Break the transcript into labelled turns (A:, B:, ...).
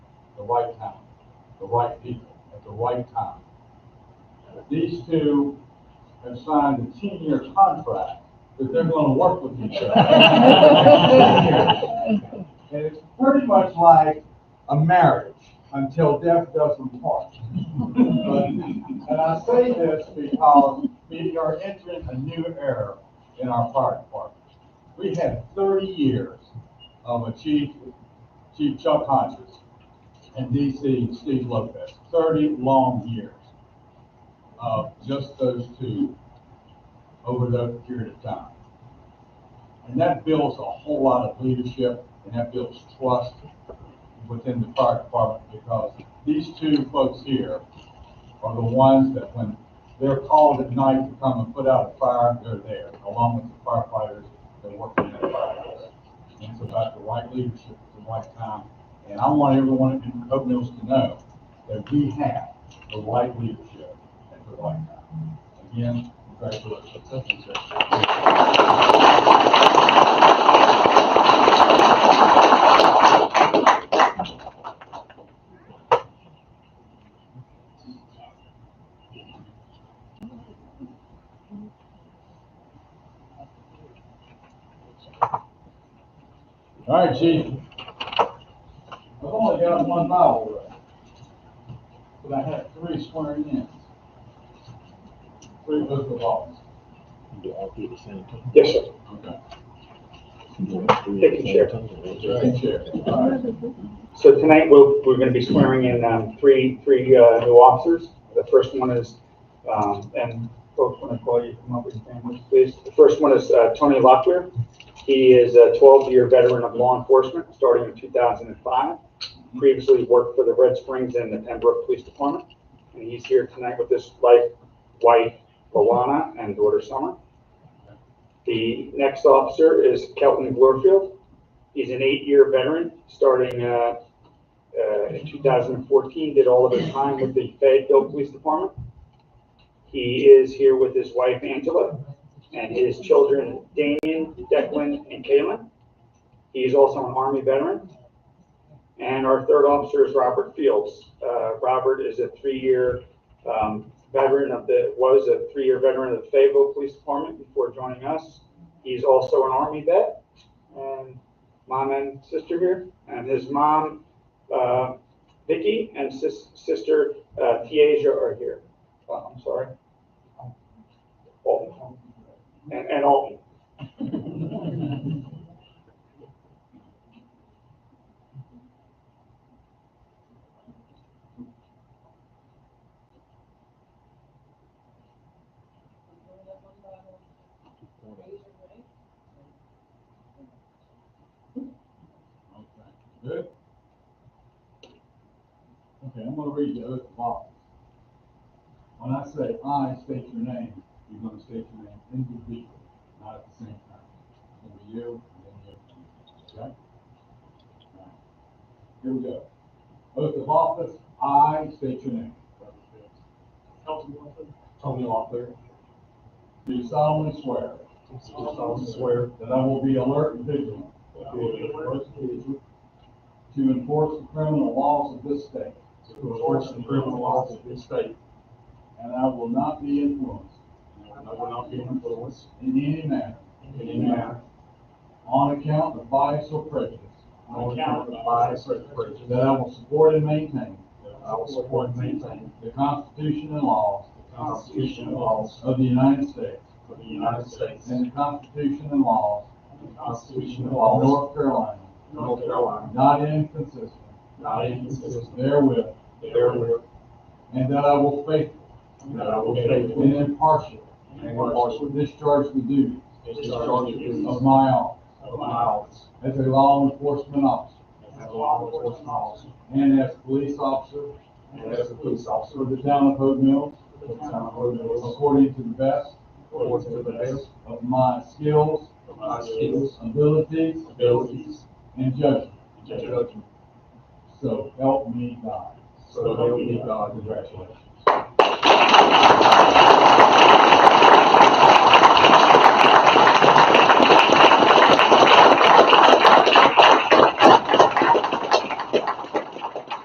A: right time, the right people, at the right time. If These two have signed a ten-year contract that they're gonna work with each other. And it's pretty much like a marriage until death does them part. And I say this because we are entering a new era in our fire department. We had thirty years of a chief, Chief Chuck Hodges and DC Steve Lopez, thirty long years of just those two over that period of time. And that builds a whole lot of leadership and that builds trust within the fire department because these two folks here are the ones that when they're called at night to come and put out a fire, they're there, along with the firefighters that work in that fire. And it's about the right leadership at the right time. And I want everyone in Hope Mills to know that we have the right leadership at the right time. Again, congratulations. Thank you, sir. All right, chief. I've only got one novel left, but I have three swearing in. Three oath of office.
B: Do all three at the same time?
C: Yes, sir.
A: Okay.
B: Do all three at the
C: Take
B: same
C: your chair.
B: time, or is
A: Thank you,
B: it-
A: Chair. All right.
C: So tonight, we're, we're going to be swearing in um, three, three uh, new officers. The first one is, um, and folks, when I call you, come up with your families, please. The first one is uh, Tony Locklear. He is a 12-year veteran of law enforcement, starting in 2005. Previously worked for the Red Springs and the Pembroke Police Department. And he's here tonight with his wife, wife Alana, and daughter Summer. The next officer is Kelton Glorfield. He's an eight-year veteran, starting uh, uh, in 2014, did all of his time with the Fayetteville Police Department. He is here with his wife Angela and his children Damian, Declan, and Kalen. He is also an Army veteran. And our third officer is Robert Fields. Uh, Robert is a three-year um, veteran of the, was a three-year veteran of the Fayetteville Police Department before joining us. He's also an Army vet and mom and sister here. And his mom uh, Vicky and sis- sister uh, Tiaja are here. Oh, I'm sorry. Alton. And and Alton.
A: Okay. Good? Okay, I'm gonna read the oath of office. When I say I state your name, you're gonna state your name individually, not at the same time. It'll be you, and then you, okay? All right. Here we go. Oath of office, I state your name.
D: Elton Wilson,
A: Tony Locklear. Do solemnly swear.
D: Do solemnly
A: swear. That I will be alert and vigilant.
D: That I will be alert and vigilant.
A: To enforce the criminal laws of this state.
D: To enforce the criminal laws of this state.
A: And I will not be influenced.
D: and I will not be influenced
A: In any manner.
D: in any manner
A: On account of bias or prejudice.
D: on account of bias or prejudice.
A: That I will support and maintain.
D: that I will support and maintain
A: The Constitution and laws.
D: the Constitution and laws
A: Of the United States.
D: of the United States
A: And
D: and
A: the Constitution and laws.
D: the Constitution
A: Of
D: and laws
A: North Carolina.
D: of North Carolina,
A: Not inconsistent.
D: not inconsistent
A: Therewith.
D: therewith,
A: And that I will faithfully.
D: and that I will faithfully
A: And impartially.
D: And impartially.
A: Discharge the duties.
D: discharge the duties
A: Of
D: of
A: my office.
D: my office
A: As a law enforcement officer.
D: as a law enforcement officer
A: And as police officer.
D: and as a police
A: For
D: officer
A: the town of Hope Mills.
D: For the town of Hope Mills.
A: According to the best.
D: According to the best.
A: Of my skills.
D: of my skills,
A: Abilities.
D: abilities,
A: And judgment.
D: and judgment.
A: So help me God.
D: So help me God.
A: Congratulations.